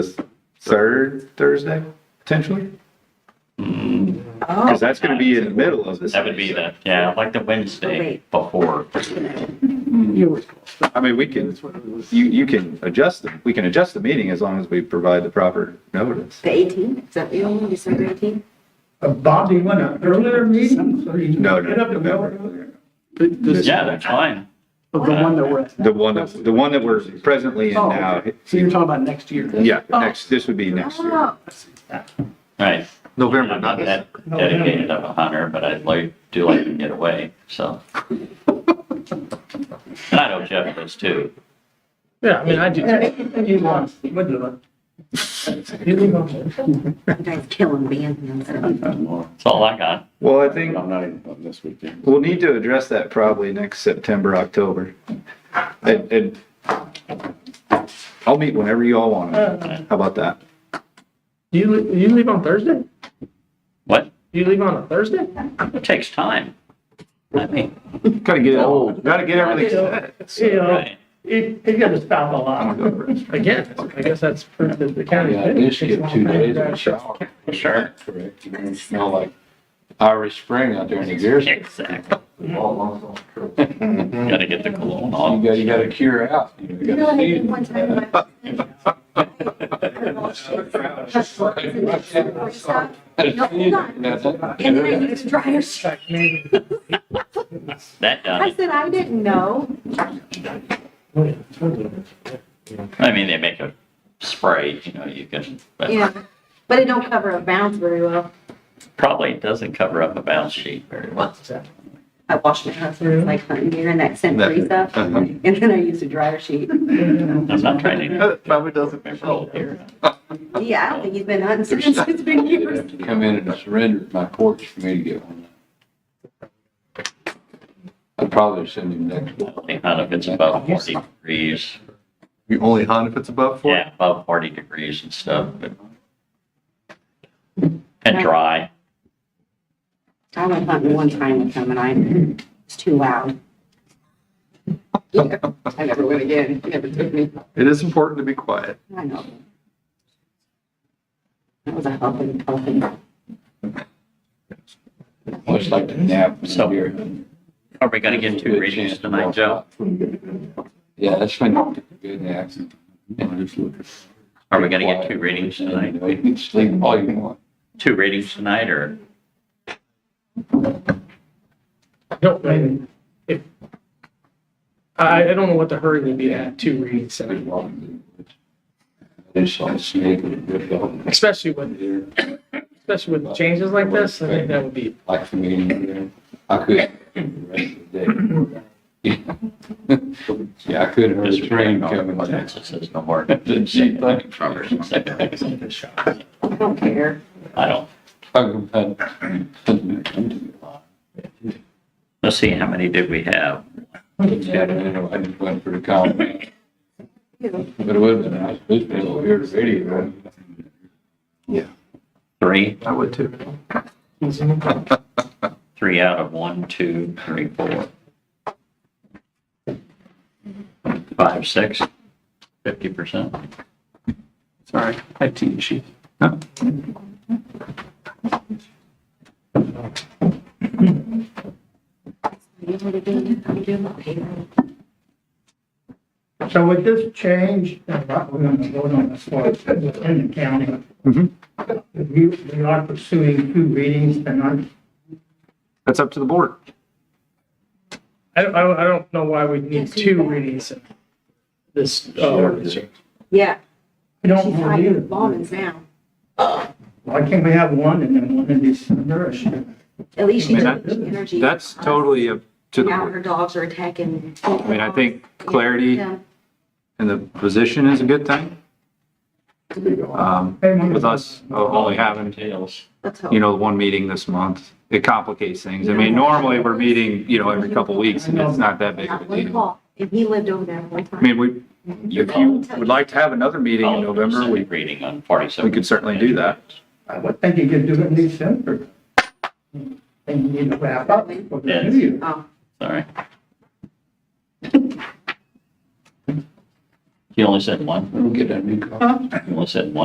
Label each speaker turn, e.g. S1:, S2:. S1: third Thursday, potentially?
S2: Oh.
S1: Because that's going to be in the middle of this.
S3: That would be the, yeah, like the Wednesday
S4: Oh, Wait.
S3: before.
S1: I mean, we can, you, you can adjust them. We can adjust the meeting as long as we provide the proper notice.
S4: The 18th, is that the only, December 18th?
S2: Uh, Bob, do you want an earlier meeting? so you can
S1: No, no,
S2: Get up to
S1: November.
S2: November.
S3: Yeah, that's fine.
S5: The one that we're at.
S1: The one, that- the one that we're presently in
S5: Oh,
S1: now.
S5: okay. So you're talking about next year?
S1: Yeah,
S2: Oh,
S1: next, this would be next year.
S4: Oh,
S3: Right.
S1: November.
S3: I'm not that dedicated of a hunter, but I'd like, do like to get away, so. And I know Jeff does too.
S6: Yeah, I mean, I do.
S2: Yeah, You want, would do it. You leave on.
S4: You guys killing me. I'm sorry.
S3: That's all I got.
S1: Well, I think
S7: I'm not even on this weekend.
S1: we'll need to address that probably next September, October. And, and I'll meet whenever you all want. to. How about that?
S6: Do you, le- you leave on Thursday?
S3: What?
S6: Do you leave on a Thursday?
S3: It takes time. I mean,
S1: Gotta get it
S4: Oh.
S1: all, gotta get everything set.
S2: You know,
S3: right.
S2: he, he got us found a
S1: I'm
S2: lot.
S1: gonna go first.
S6: Again, I guess that's proof that the county's.
S7: Yeah, I did skip two days in the shower.
S3: Sure.
S7: Correct. You know, it smelled like Irish Spring out there in the gear. You
S3: Exactly.
S7: gotta,
S3: Gotta get the cologne on.
S7: you gotta cure out. You know, you
S4: You know what
S7: gotta
S4: I
S7: see
S4: did
S7: it.
S4: one time? in
S6: Uh,
S4: my- No, hold on. And then I
S7: That's
S4: used dryer sheet.
S3: That done.
S4: I
S3: it.
S4: said, I didn't know.
S3: I mean, they make a spray, you know, you can, but
S4: Yeah, but it don't cover a bounce very well.
S3: probably doesn't cover up a balance sheet very well.
S4: I washed my husband's like hunting gear and that scent freeze up.
S1: Uh-huh.
S4: And then I used a dryer sheet.
S3: I'm not trying to
S1: That Probably doesn't.
S3: remember old here.
S4: Yeah, I don't think he's been hunting since it's been years.
S7: Come in and surrender at my porch for me to get one. I'd probably send him next.
S3: I don't think Not if it's above forty degrees.
S1: You only hunt if it's above four?
S3: Yeah, above forty degrees and stuff, but. And dry.
S4: I went hunting one time with him and I, it's too loud. Yeah, I never went again. He never took me.
S1: It is important to be quiet.
S4: I know. That was a helping, helping.
S7: Much like the nap.
S3: So- Are we gonna get two readings tonight, Joe?
S7: Yeah, that's been good nap.
S3: Are we gonna get two readings tonight?
S7: You can sleep all oh, you want.
S3: Two readings tonight or
S6: No, I- if, I, I don't know what the hurry would be to have two readings tonight,
S7: I just saw a snake with a good dog.
S6: especially with,
S7: There,
S6: especially with changes like this, I think that would be.
S7: Like for me, there. I could. the rest of the day. Yeah, I could hear the
S3: just rain
S7: train coming.
S3: coming? It says no more.
S7: Didn't see that.
S3: I
S4: I don't care.
S3: don't,
S7: Yeah,
S3: let's see, how many did we have?
S7: I don't know, I just went for the comment,
S4: You
S7: but it would have been nice, this was over here to radio.
S3: Three,
S1: I would too.
S3: three out of one, two, three, four. Five, six, fifty percent.
S5: Sorry, I have team sheet.
S4: know what I mean? I'm doing my payroll.
S2: So with this change, and what we're gonna vote on this one within the county.
S1: Mhm.
S2: We, we are pursuing two readings tonight.
S1: That's up to the board.
S6: I don't, I don't- I don't know why we need two readings in this, uh, ordinance.
S4: Yeah,
S2: We don't
S4: she's
S2: want
S4: hiding the
S2: either.
S4: bombings now.
S2: Why can't we have one and then one in December? or should-
S4: At least she
S1: I mean,
S4: took the energy.
S1: That's totally up to the
S4: Now her
S1: board.
S4: dogs are attacking.
S1: I mean, I think clarity
S4: Yeah.
S1: in the position is a good thing. Um, with us uh, only having,
S3: Tails.
S4: Let's hope.
S1: you know, one meeting this month, it complicates things. I mean, normally we're meeting, you know, every couple weeks and it's not that big of
S4: Not
S1: a
S4: one
S1: deal.
S4: call. And he lived over there one
S1: I
S4: time.
S1: mean, we, if you would like to have another meeting in November, we,
S3: Reading on forty-seven.
S1: we could certainly do that.
S2: I would think you could do it in December. And you need to wrap up for the
S3: Yes.
S2: new year.
S4: Oh,
S3: Sorry. You only said one?
S7: We'll get a new car.
S3: You only said one?